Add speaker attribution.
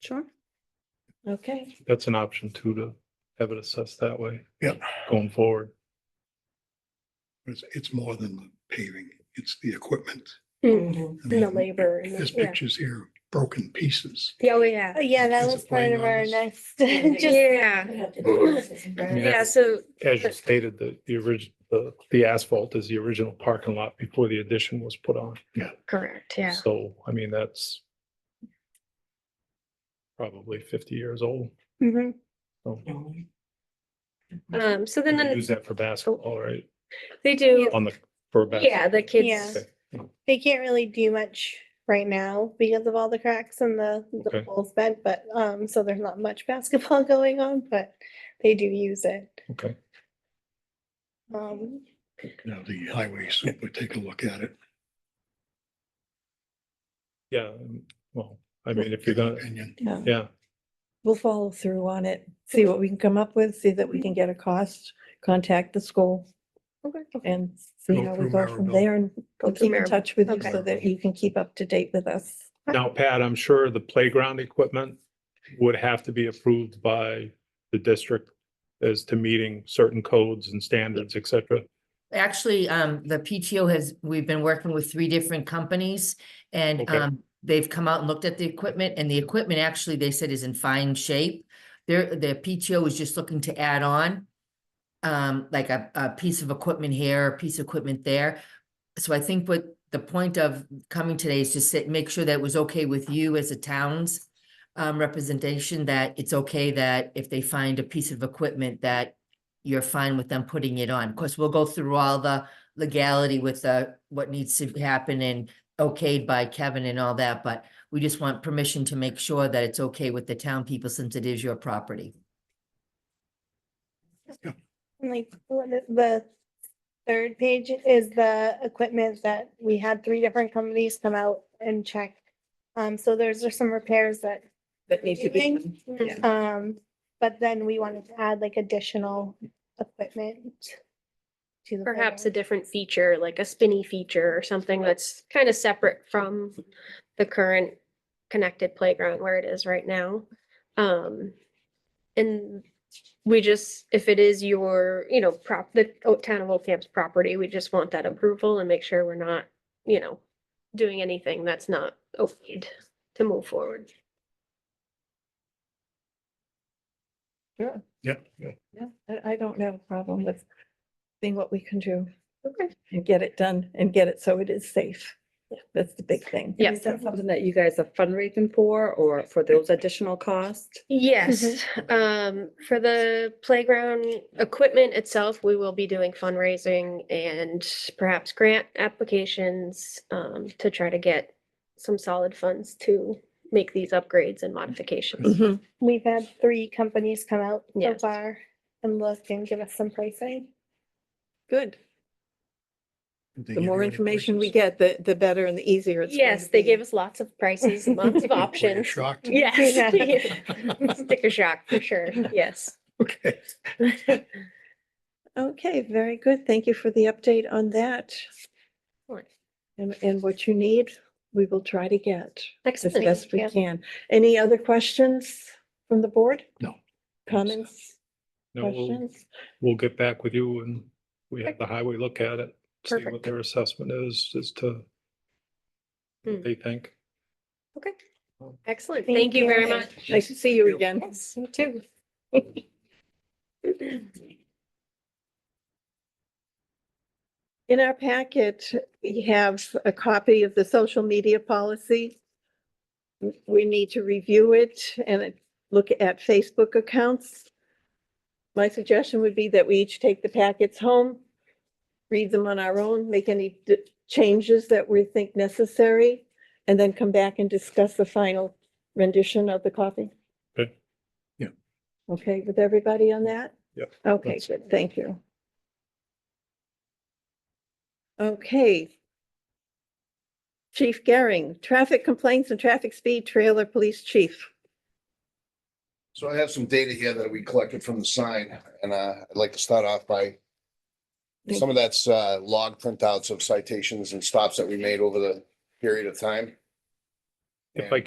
Speaker 1: Sure. Okay,
Speaker 2: That's an option too, to have it assessed that way.
Speaker 3: Yep.
Speaker 2: Going forward.
Speaker 3: It's, it's more than the paving, it's the equipment.
Speaker 1: Mhm.
Speaker 3: I
Speaker 4: And the
Speaker 3: mean,
Speaker 4: labor and
Speaker 3: There's
Speaker 4: the, yeah.
Speaker 3: pictures here, broken pieces.
Speaker 4: Oh, yeah.
Speaker 5: Oh, Yeah, that
Speaker 3: It's a
Speaker 5: was part of our
Speaker 3: playground.
Speaker 5: next. just-
Speaker 4: Yeah,
Speaker 1: We have to do this, right?
Speaker 2: Yeah.
Speaker 4: yeah, so,
Speaker 2: As you stated, the, the original, the, the asphalt is the original parking lot before the addition was put on.
Speaker 4: correct, yeah.
Speaker 2: So, I mean, that's probably fifty years old. Mm-hmm.
Speaker 5: Mhm.
Speaker 2: So
Speaker 4: Um, so
Speaker 2: they
Speaker 4: then the-
Speaker 2: use that for basketball, right?
Speaker 4: they do,
Speaker 2: On the, for basketball.
Speaker 4: yeah, the kids,
Speaker 5: Yeah.
Speaker 2: Okay.
Speaker 5: They can't really do much right now because of all the cracks and the,
Speaker 2: Okay.
Speaker 5: the poles bent, but, um, so there's not much basketball going on, but they do use it.
Speaker 2: Okay.
Speaker 5: Um,
Speaker 3: Now, the highway super, take a look at it.
Speaker 2: Yeah, well, I mean, if you're gonna,
Speaker 3: Opinion.
Speaker 1: Yeah.
Speaker 2: yeah,
Speaker 1: We'll follow through on it, see what we can come up with, see that we can get a cost, contact the school
Speaker 5: okay.
Speaker 1: and see
Speaker 3: Go
Speaker 1: how we
Speaker 3: through
Speaker 1: go from
Speaker 3: Maribel.
Speaker 1: there and we'll
Speaker 4: through
Speaker 1: keep in
Speaker 4: Maribel.
Speaker 1: touch with you so
Speaker 3: Okay.
Speaker 1: that you can keep up to date with us.
Speaker 2: now Pat, I'm sure the playground equipment would have to be approved by the district as to meeting certain codes and standards, et cetera.
Speaker 6: Actually, um, the PTO has, we've been working with three different companies and,
Speaker 2: Okay.
Speaker 6: um, they've come out and looked at the equipment and the equipment actually, they said is in fine shape. Their, the PTO is just looking to add on, um, like a, a piece of equipment here, a piece of equipment there. So I think what the point of coming today is to sit, make sure that it was okay with you as a town's um, representation, that it's okay that if they find a piece of equipment that you're fine with them putting it on. Of course, we'll go through all the legality with the, what needs to happen and okayed by Kevin and all that, but we just want permission to make sure that it's okay with the town people since it is your property.
Speaker 5: And like, what is the third page is the equipment that we had three different companies come out and check. Um, so there's just some repairs that
Speaker 1: That need
Speaker 5: to be done. Um, but then we wanted to add like additional equipment. to the
Speaker 4: perhaps a
Speaker 5: playground.
Speaker 4: different feature, like a spinny feature or something that's kind of separate from the current connected playground where it is right now. Um, and we just, if it is your, you know, prop, the O- town of Old Camp's property, we just want that approval and make sure we're not, you know, doing anything that's not okayed to move forward.
Speaker 3: Yep. yep.
Speaker 1: Yeah, I, I don't have a problem with seeing what we can do
Speaker 4: Okay.
Speaker 1: and get it done and get it so it is safe.
Speaker 4: Yeah.
Speaker 1: That's the big thing.
Speaker 4: Yeah.
Speaker 7: Is that something that you guys are fundraising for or for those additional costs?
Speaker 4: Yes, um, for the playground equipment itself, we will be doing fundraising and perhaps grant applications um, to try to get some solid funds to make these upgrades and modifications.
Speaker 1: Mhm.
Speaker 5: We've had three companies come out so
Speaker 4: Yes.
Speaker 5: far and look and give us some pricing.
Speaker 7: Good.
Speaker 3: Did
Speaker 1: The
Speaker 3: they give you
Speaker 1: more
Speaker 3: any
Speaker 1: information we
Speaker 3: prices?
Speaker 1: get, the, the better and the easier it's. going
Speaker 4: Yes,
Speaker 1: to
Speaker 4: they
Speaker 1: be.
Speaker 4: gave us lots of prices, lots of
Speaker 3: Were you
Speaker 4: options.
Speaker 3: Shocked.
Speaker 4: Yes. Sticker shock for sure, yes.
Speaker 3: Okay.
Speaker 1: Okay, very good. Thank you for the update on that.
Speaker 4: Excellent.
Speaker 1: And, and what you need, we will try to get as
Speaker 4: Excellent.
Speaker 1: best we
Speaker 5: Yeah.
Speaker 1: can. Any other questions from the board?
Speaker 3: No.
Speaker 1: Comments,
Speaker 2: No, we'll,
Speaker 1: questions?
Speaker 2: we'll get back with you and we have the highway look at it, see what
Speaker 4: Perfect.
Speaker 2: their assessment is as to
Speaker 4: Hmm.
Speaker 2: what they think.
Speaker 4: Okay, excellent.
Speaker 5: Thank
Speaker 4: Thank you
Speaker 5: you.
Speaker 4: very much.
Speaker 1: Nice to see you again.
Speaker 4: Yes, you too.
Speaker 1: In our packet, we have a copy of the social media policy. We need to review it and look at Facebook accounts. My suggestion would be that we each take the packets home, read them on our own, make any d- changes that we think necessary, and then come back and discuss the final rendition of the copy.
Speaker 2: Okay.
Speaker 3: Yeah.
Speaker 1: Okay, with everybody on that?
Speaker 2: Yep.
Speaker 1: Okay,
Speaker 2: That's-
Speaker 1: good, thank you. Okay. Chief Gehring, traffic complaints and traffic speed trailer police chief.
Speaker 8: So I have some data here that we collected from the sign, and uh, I'd like to start off by
Speaker 1: Thank
Speaker 8: some of that's uh, log printouts of citations and stops that we made over the period of time.
Speaker 2: If I
Speaker 8: And,